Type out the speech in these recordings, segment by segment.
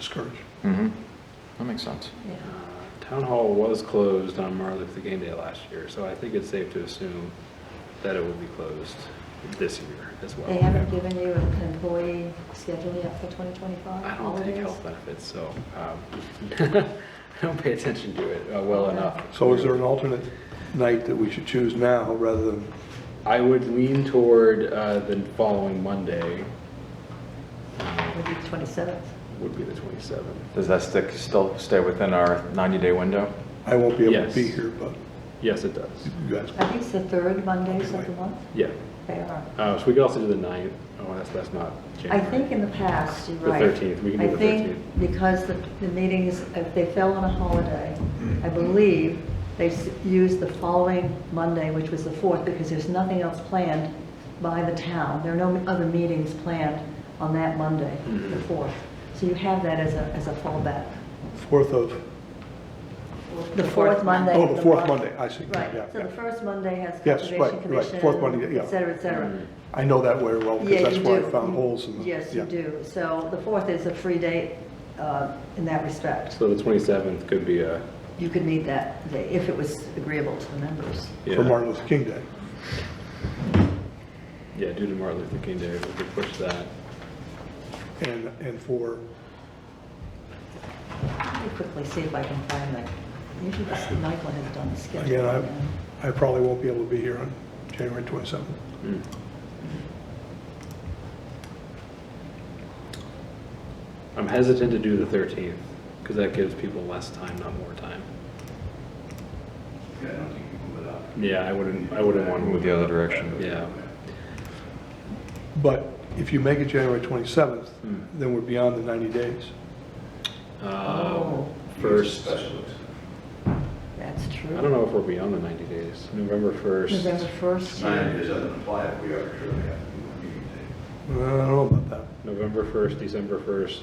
storage. Mm-hmm. That makes sense. Uh, Town Hall was closed on Martin Luther King Day last year, so I think it's safe to assume that it will be closed this year as well. They haven't given you an employee schedule yet for 2025? I don't take holidays? health benefits, so um, I don't pay attention to it uh, well enough. So is there an alternate night that we should choose now rather than, I would lean toward uh, the following Monday um, It would be 27th. would be the 27th. Does that stick, still stay within our 90-day window? I won't be able to Yes. be here, but Yes, it does. you guys, I think it's the third Mondays of the month. Yeah. They are. Uh, So we could also do the 9th. Oh, that's, that's not I January. think in the past, you're The right. 13th, we can do the I think because the, the meetings, if they fell on a holiday, I believe they s- used the following Monday, which was the 4th, because there's nothing else planned by the town. There are no other meetings planned on that Monday, Mm-hmm. the 4th. So you have that as a, as a fallback. fourth of, The fourth Monday. oh, of the fourth month. Monday, I see. Yeah, Right, so yeah. the first Monday has Yes, right, Conservation right. Commission. Fourth Monday, yeah. Et cetera, et cetera. I know that very well Yeah, because that's you where do. I found holes in the. Yes, you yeah. do. So the 4th is a free date uh, in that respect. So the 27th could be a, You could meet that day if it was agreeable to the members. yeah. For Martin Luther King Day. Yeah, due to Martin Luther King Day, we could push that. And, and for, Let me quickly see if I can find that. Usually this- Michael has done the schedule. again, I, I probably won't be able to be here on January 27th. I'm hesitant to do the 13th, because that gives people less time, not more time. Yeah, I don't think you move it up. Yeah, I wouldn't, I wouldn't want to Move move the other direction. Yeah, But if you make it January 27th, Hmm. then we're beyond the 90 days. Um, Oh, first, I Special exception. that's true. don't know if we're beyond the 90 days, November 1st. November 1st. Nine days doesn't apply if we arbitrarily have to do a meeting Uh, day. I don't know about that. November 1st, December 1st.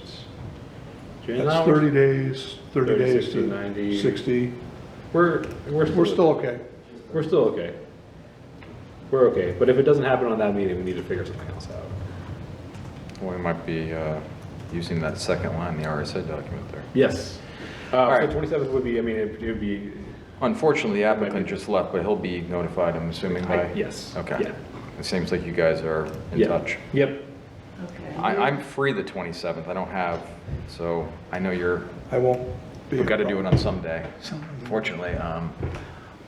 January- That's 30 days, 30 30, days 60, 90. to 60. We're, we're. We're still okay. We're still okay. We're okay, but if it doesn't happen on that meeting, we need to figure something else out. We might be uh, using that second line, the RSA document there. Yes. All Uh, right. so 27th would be, I mean, it it would be, Unfortunately, the applicant be- just left, but he'll be notified, I'm assuming, I- by? yes. Okay. Yeah. It seems like you guys are in Yeah. touch. Yep, Okay. I, I'm free the 27th, I don't have, so I know you're, I won't be. we've got to do it on some day, fortunately. um,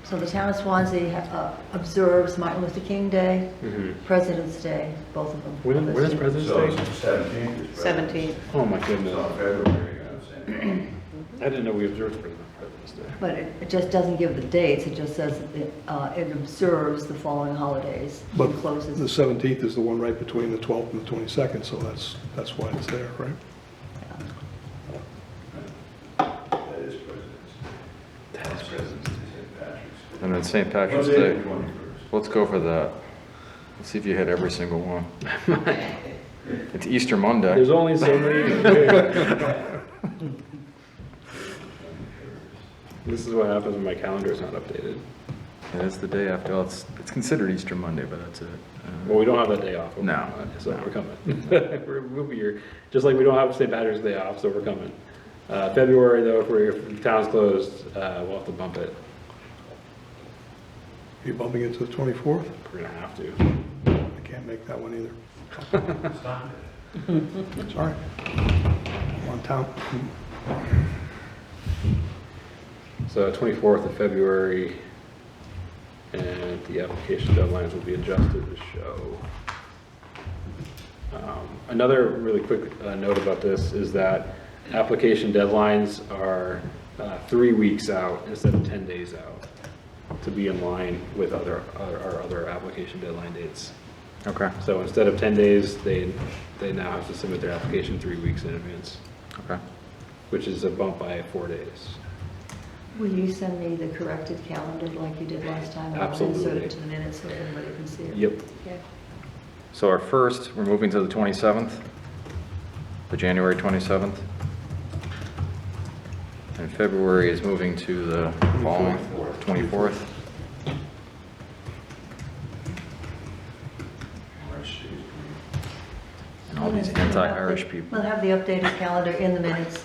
So the town of Swansea uh, observes Martin Luther King Day, Mm-hmm. President's Day, both of them. when, when is listed. President's So Day? it's seventeenth is. Seventeenth. Oh, my It's goodness. on February, I'm saying. I didn't know we observed President's Day. But it it just doesn't give the dates, it just says it uh, it observes the following holidays But and the closes. 17th is the one right between the 12th and the 22nd, so that's, that's why it's there, right? That is President's Day. That is President's Day, St. Patrick's. And then St. Patrick's What day Day, is the 21st? let's go for that. Let's see if you hit every single one. It's Easter Monday. There's only so many. This is what happens when my calendar is not updated. It is the day after, well, it's, it's considered Easter Monday, but that's it. Uh, Well, we don't have that day off. No, So we're coming. We're, we'll be here, just like we don't have St. Patrick's Day off, so we're coming. Uh, February though, if we're, if the town's closed, uh, we'll have to bump it. Are you bumping it to the 24th? We're gonna have to. I can't make that one either. Stop it. Sorry. I'm on town. So 24th of February, and the application deadlines will be adjusted to show. Um, Another really quick uh, note about this is that application deadlines are uh, three weeks out instead of 10 days out to be in line with other, other- our other application deadline dates. Okay, So instead of 10 days, they, they now have to submit their application three weeks in advance, okay. which is a bump by four days. Will you send me the corrected calendar like you did last time? and I'll insert Absolutely. it to the minutes so everybody can see it. Yep. Okay. So our first, we're moving to the 27th, the January 27th. And February is moving to the following, 24th. March sixth. And all these anti-Irish people. We'll have the updated calendar in the minutes